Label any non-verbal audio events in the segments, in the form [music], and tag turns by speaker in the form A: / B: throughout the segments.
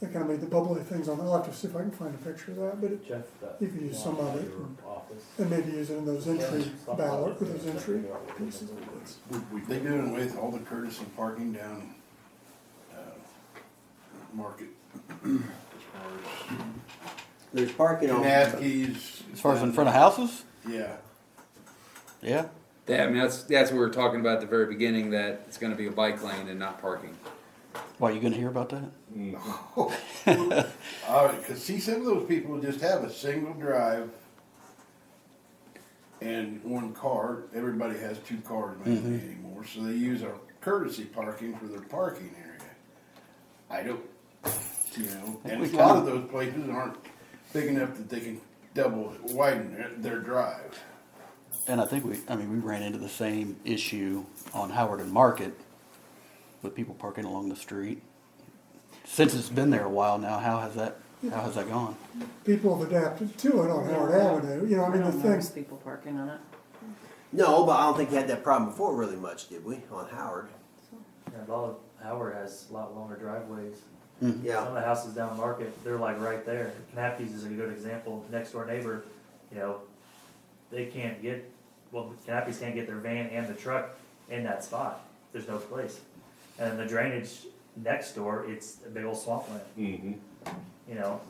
A: that kind of made the bubbly things on. it. I'll have to see if I can find a picture of that, but it,
B: Jeff, that.
A: You could use some of it.
B: your Office.
A: and maybe use it in those entry
B: Something
A: ballot,
B: like
A: or
B: that.
A: those entry pieces. It's-
C: They doing away with all the courtesy parking down, uh, Market. As
D: There's parking
C: far
D: on.
C: as Knappke's.
E: As far as in front of houses?
C: Yeah,
E: Yeah.
F: Yeah, I mean, that's, that's what we were talking about at the very beginning, that it's gonna be a bike lane and not parking.
E: Why, you gonna hear about that?
C: all right, cause see, some of those people would just have a single drive and one car, everybody has two cars mainly
E: Mm-hmm.
C: anymore, so they use our courtesy parking for their parking area. I don't, you know, and
E: we
C: a lot
E: kinda-
C: of those places aren't big enough that they can double widen their, their drive.
E: And I think we, I mean, we ran into the same issue on Howard and Market with people parking along the street. Since it's been there a while now, how has that, how has that gone?
A: People have adapted to it on Howard Avenue, you know, I mean, the
G: don't notice
A: things,
G: people parking on it.
D: No, but I don't think we had that problem before really much, did we? On Howard.
H: Yeah, a lot of Howard has a lot longer driveways. Some of
D: Yeah.
H: the houses down market, they're like right there. Nappies is a good example. Next door neighbor, you know, they can't get, well, Nappies can't get their van and the truck in that spot. There's no place. And then the drainage next door, it's a big old swampland. Mm-hmm. You know,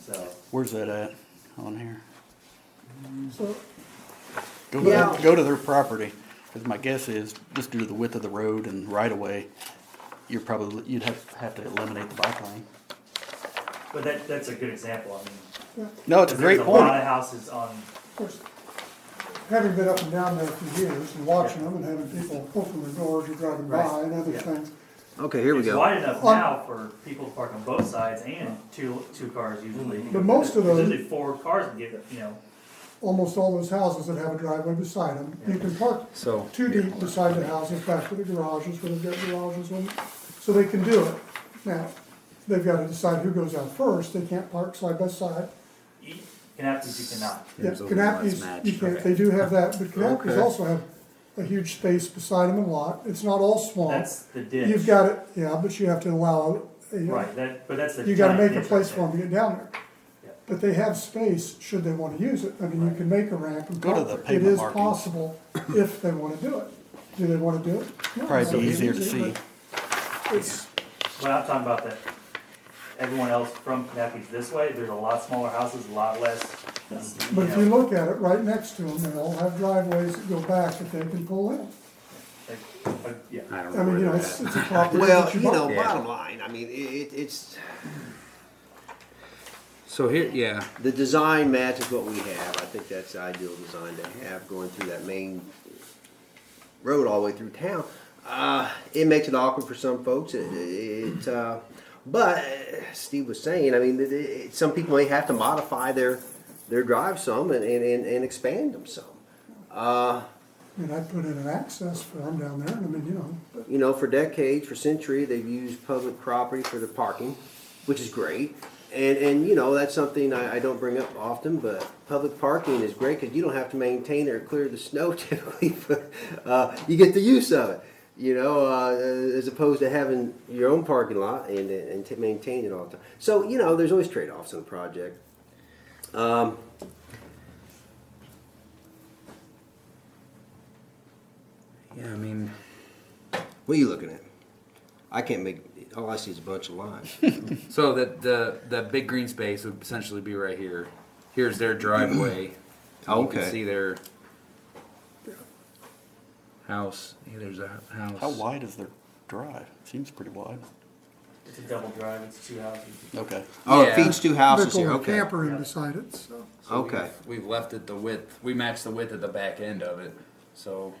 H: so.
E: Where's that at on here?
A: so,
E: Go to, their-
D: Yeah.
E: go to their property, cause my guess is, just due to the width of the road and right of way, you're probably, you'd have, have to eliminate the bike lane.
H: But that, that's a good example, I mean.
E: No, it's a
H: 'cause
E: great
H: there's A lot
E: point.
H: of houses on,
A: of course, having been up and down there for years and watching them and having people open their doors or driving by
H: Right.
A: and other
D: Yeah.
A: things,
D: Okay, here we
H: It's
D: go.
H: wide enough
A: On-
H: now for people to park on both sides and two, two cars usually.
A: But most of
H: There's
A: those-
H: Usually four cars can get, you know,
A: almost all those houses that have a driveway beside them, you can park
F: So.
A: too deep beside the houses, back to the garages, where they've got garages, and, so they can do it. Now, they've gotta decide who goes out first, they can't park side by side.
H: you can have to, you cannot.
A: Yeah,
D: There's only one that's
A: Canapkees, you
D: matched.
A: can't, they do have that, but Canapkees also have a huge space beside them and lot, it's not all small.
H: That's the
A: You've
H: ditch,
A: got it, yeah, but you have to allow, a-
H: right, that, but that's the.
A: you gotta
H: giant
A: make a
H: ditch right
A: place for them to get down there.
H: Yeah.
A: But they have space, should they wanna use it, I mean, you can make a ramp and
E: Go to
A: park
E: the
A: there. It
E: pavement
A: is
E: markings.
A: possible if they wanna do it. Do they wanna do it? No, it's
E: Probably
A: not
E: be easier to
A: easy,
E: see.
A: but It's,
H: there. But I'm talking about that, everyone else from Canapkees this way, there's a lot smaller houses, a lot less. you
A: But if
H: know,
A: you look at it, right next to them, they all have driveways that go back that they can pull in.
H: like, like, Yeah.
D: I don't
A: I mean, you know,
D: where
A: it's,
D: they're
A: it's a property
D: Well,
A: that you
D: you know,
A: bought.
D: bottom line, I mean, it, it, it's,
F: So here, yeah,
D: the design matches what we have. I think that's the ideal design to have going through that main road all the way through town. Uh, it makes it awkward for some folks. It, it uh, but uh, Steve was saying, I mean, it, it, some people may have to modify their their drive some and, and, and, and expand them some. Uh,
A: I mean, I'd put in an access for them down there, and I mean, you know, but
D: you know, for decades, for centuries, they've used public property for the parking, which is great. And, and you know, that's something I, I don't bring up often, but public parking is great because you don't have to maintain or clear the snow [laughs] typically. but, uh, you get the use of it, you know, uh, as opposed to having your own parking lot and, and to maintain it all the time. So, you know, there's always trade offs in a project. Um,
F: yeah, I mean,
D: what are you looking at? I can't make, all I see is a bunch of
F: [laughs]
D: lines.
F: so that the, the big green space would essentially be right here. Here's
E: [clears throat]
F: their driveway. You
D: Okay.
F: can see their house. Hey, there's a house.
E: How wide is their drive? Seems pretty wide.
H: It's a double drive, it's two houses.
E: Okay.
D: Oh, it
F: Yeah.
D: feeds two houses
A: they're
D: here.
A: going
D: Okay.
A: camper in beside it, so.
F: So we've-
D: Okay.
F: We've left it the width, we matched the width at the back end of it, so.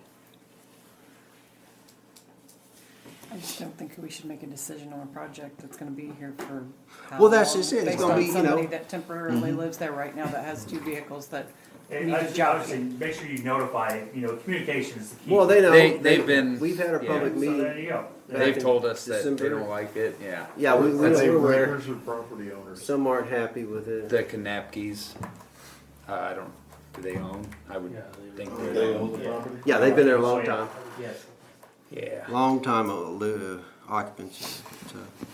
G: I just don't think we should make a decision on a project that's gonna be here for. how
D: Well, that's
G: long,
D: just it. It's
G: based
D: gonna
G: on
D: be, you know- Mhm.
G: Somebody that temporarily lives there right now that has two vehicles that
H: And
G: need
H: I
G: a
H: just,
G: job.
H: obviously, make sure you notify, you know, communication is the key.
D: Well, they know.
F: They- they've been-
D: We've had a
F: yeah.
D: public
H: So there
D: meeting.
H: you go.
F: They've
D: in
F: told us that they
D: December.
F: don't like it, yeah.
D: Yeah, we, we,
C: Are they
D: we're aware.
C: renters or property owners?
D: Some aren't happy with it.
F: The Kanapkis, uh, I don't, do they own? I would
H: Yeah,
F: think
C: Do
F: they
C: they
F: own.
C: own the property?
D: Yeah, they've been there a long
H: So, yeah,
D: time.
H: Yes.
F: Yeah.
D: Long time uh, li- uh, occupancy. So,